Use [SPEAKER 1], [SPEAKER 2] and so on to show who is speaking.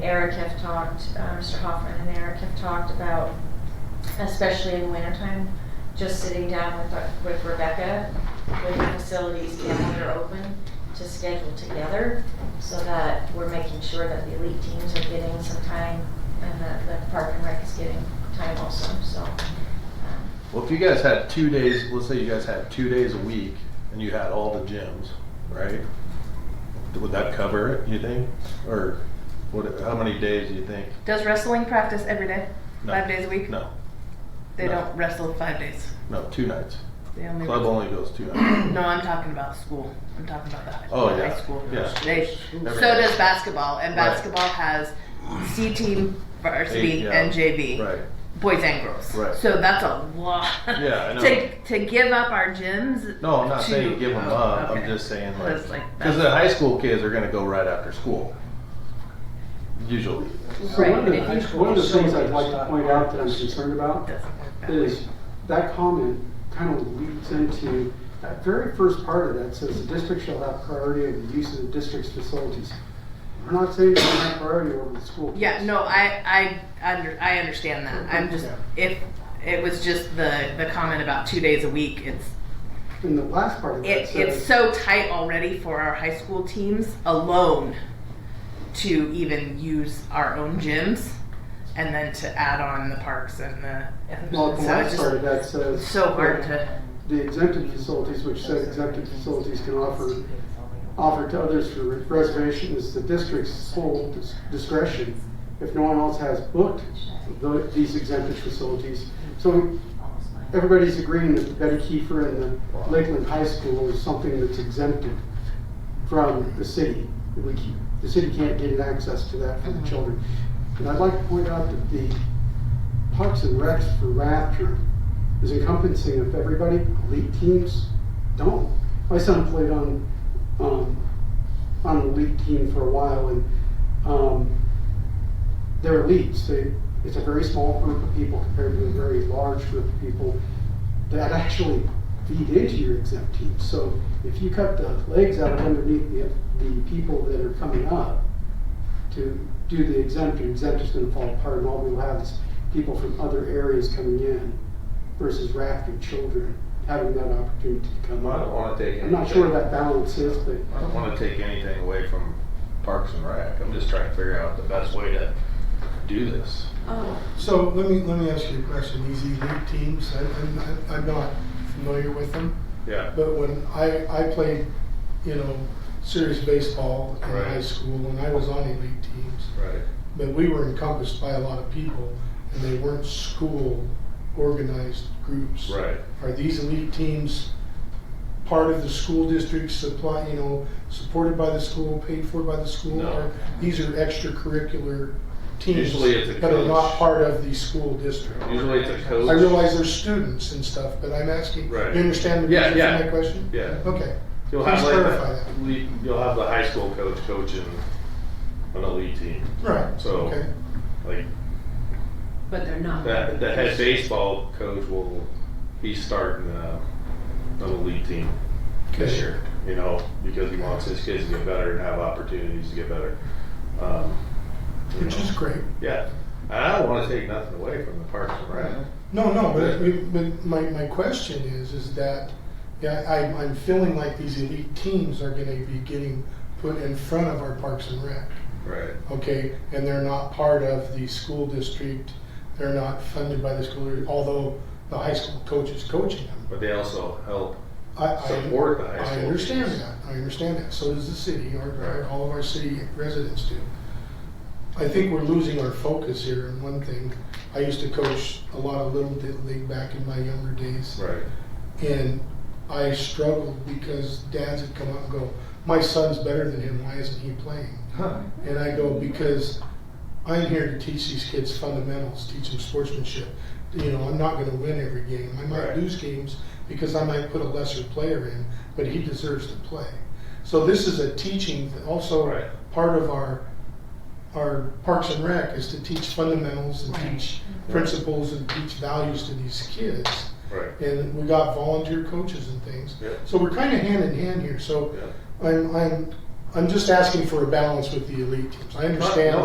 [SPEAKER 1] Eric have talked, uh, Mr. Hoffman and Eric have talked about, especially in wintertime, just sitting down with, uh, with Rebecca, with the facilities calendar open, to schedule together, so that we're making sure that the elite teams are getting some time, and that the park and rec is getting time also, so. um,
[SPEAKER 2] Well, if you guys had two days, let's say you guys had two days a week and you had all the gyms, right? Would that cover it, you think? Or what, how many days do you think?
[SPEAKER 3] Does wrestling practice every day?
[SPEAKER 2] No.
[SPEAKER 3] Five days a week?
[SPEAKER 2] No,
[SPEAKER 3] They
[SPEAKER 2] No.
[SPEAKER 3] don't wrestle five days.
[SPEAKER 2] no, two nights.
[SPEAKER 3] They only.
[SPEAKER 2] Club only goes two nights.
[SPEAKER 3] No, I'm talking about school. I'm talking about the high,
[SPEAKER 2] Oh,
[SPEAKER 3] the
[SPEAKER 2] yeah.
[SPEAKER 3] high school.
[SPEAKER 2] Yeah.
[SPEAKER 3] They,
[SPEAKER 2] Every
[SPEAKER 3] so
[SPEAKER 2] day.
[SPEAKER 3] does basketball, and
[SPEAKER 2] Right.
[SPEAKER 3] basketball has C team, varsity,
[SPEAKER 2] Eight, yeah.
[SPEAKER 3] and JV,
[SPEAKER 2] Right.
[SPEAKER 3] boys and girls.
[SPEAKER 2] Right.
[SPEAKER 3] So that's a lot.
[SPEAKER 2] Yeah, I know.
[SPEAKER 3] to to give up our gyms.
[SPEAKER 2] No, I'm not saying
[SPEAKER 3] to-
[SPEAKER 2] give them
[SPEAKER 3] oh,
[SPEAKER 2] up.
[SPEAKER 3] okay.
[SPEAKER 2] I'm just saying
[SPEAKER 3] That's
[SPEAKER 2] like,
[SPEAKER 3] like-
[SPEAKER 2] because the high school kids are gonna go right after school. Usually.
[SPEAKER 4] So one
[SPEAKER 1] Right,
[SPEAKER 4] of
[SPEAKER 1] but
[SPEAKER 4] the,
[SPEAKER 1] if you-
[SPEAKER 4] one of the things I'd like to point out that I'm concerned about
[SPEAKER 3] Doesn't work that way.
[SPEAKER 4] is that comment kind of leads into that very first part of that says the district shall have priority of the use of the district's facilities. We're not saying we have priority over the school.
[SPEAKER 3] Yeah, no, I I under, I understand that. I'm just if if it was just the the comment about two days a week. It's
[SPEAKER 4] And the last part of that
[SPEAKER 3] it, it's
[SPEAKER 4] says,
[SPEAKER 3] so tight already for our high school teams alone to even use our own gyms and then to add on the parks and the and
[SPEAKER 4] well, the
[SPEAKER 3] so it's
[SPEAKER 4] last part of
[SPEAKER 3] just
[SPEAKER 4] that says.
[SPEAKER 3] so hard to
[SPEAKER 4] The exempted facilities, which said exempted facilities can offer, offer to others for reservation is the district's sole dis- discretion. If no one else has booked the- these exempted facilities. So everybody's agreeing that Betty Kiefer and the Lakeland High School is something that's exempted from the city. that We keep, the city can't get access to that for the children. And I'd like to point out that the Parks and Recs for Raptor is encompassing of everybody. Elite teams don't. My son played on, um, on an elite team for a while and, um, they're elites. They, it's a very small group of people compared to a very large group of people that actually feed into your exempt team. So if you cut the legs out of underneath the, the people that are coming up to do the exempt, your exempt is gonna fall apart and all we'll have is people from other areas coming in versus rafting children, having that opportunity to come
[SPEAKER 2] I don't
[SPEAKER 4] up.
[SPEAKER 2] wanna take.
[SPEAKER 4] I'm not sure what that balance is, but
[SPEAKER 2] I don't want to take anything away from Parks and Rec. I'm just trying to figure out the best way to do this.
[SPEAKER 1] Oh,
[SPEAKER 5] So let me, let me ask you a question. These elite teams, I, I'm, I'm not familiar with them,
[SPEAKER 2] Yeah.
[SPEAKER 5] but when I, I played, you know, serious baseball in
[SPEAKER 2] Right.
[SPEAKER 5] high school and I was on elite teams,
[SPEAKER 2] Right.
[SPEAKER 5] but we were encompassed by a lot of people and they weren't school organized groups.
[SPEAKER 2] Right.
[SPEAKER 5] Are these elite teams part of the school district supply, you know, supported by the school, paid for by the school?
[SPEAKER 2] No.
[SPEAKER 5] Or These are extracurricular teams
[SPEAKER 2] Usually it's a
[SPEAKER 5] that are
[SPEAKER 2] coach.
[SPEAKER 5] not part of the school district.
[SPEAKER 2] Usually it's a coach.
[SPEAKER 5] I realize they're students and stuff, but I'm asking, you
[SPEAKER 2] Right.
[SPEAKER 5] understand the
[SPEAKER 2] Yeah,
[SPEAKER 5] reason
[SPEAKER 2] yeah.
[SPEAKER 5] for my question?
[SPEAKER 2] Yeah.
[SPEAKER 5] Okay,
[SPEAKER 2] You'll have
[SPEAKER 5] Please
[SPEAKER 2] like
[SPEAKER 5] clarify
[SPEAKER 2] the, le- you'll have the high school coach coaching an elite team.
[SPEAKER 5] right,
[SPEAKER 2] So-
[SPEAKER 5] okay.
[SPEAKER 2] Like
[SPEAKER 6] But they're not.
[SPEAKER 2] that, the head baseball coach will be starting uh, an elite team this
[SPEAKER 5] Okay.
[SPEAKER 2] year. You know, because he wants his kids to get better and have opportunities to get better. Um, you
[SPEAKER 5] Which
[SPEAKER 2] know.
[SPEAKER 5] is great.
[SPEAKER 2] Yeah, and I don't want to take nothing away from the Parks and Rec.
[SPEAKER 5] No, no, but, but my, my question is, is that, yeah, I, I'm feeling like these elite teams are gonna be getting put in front of our Parks and Rec,
[SPEAKER 2] Right.
[SPEAKER 5] okay? And they're not part of the school district, they're not funded by the school, although the high school coach is coaching them.
[SPEAKER 2] But they also help
[SPEAKER 5] I, I,
[SPEAKER 2] support the high
[SPEAKER 5] I
[SPEAKER 2] school.
[SPEAKER 5] understand
[SPEAKER 2] teams.
[SPEAKER 5] that, I understand that, so does the city, or- or
[SPEAKER 2] Right.
[SPEAKER 5] all of our city residents do. I think we're losing our focus here in one thing. I used to coach a lot of little league back in my younger days,
[SPEAKER 2] Right.
[SPEAKER 5] and I struggled because dads would come up and go, my son's better than him, why isn't he playing? And I go, because I'm here to teach these kids fundamentals, teach them sportsmanship. You know, I'm not gonna win every game. I might
[SPEAKER 2] Right.
[SPEAKER 5] lose games because I might put a lesser player in, but he deserves to play. So this is a teaching, also
[SPEAKER 2] Right.
[SPEAKER 5] part of our, our Parks and Rec is to teach fundamentals and
[SPEAKER 3] Right.
[SPEAKER 5] teach principles and teach values to these kids.
[SPEAKER 2] Right.
[SPEAKER 5] And we got volunteer coaches and things.
[SPEAKER 2] Yeah.
[SPEAKER 5] So we're kinda hand in hand here, so
[SPEAKER 2] Yeah.
[SPEAKER 5] I'm, I'm, I'm just asking for a balance with the elite teams. I understand.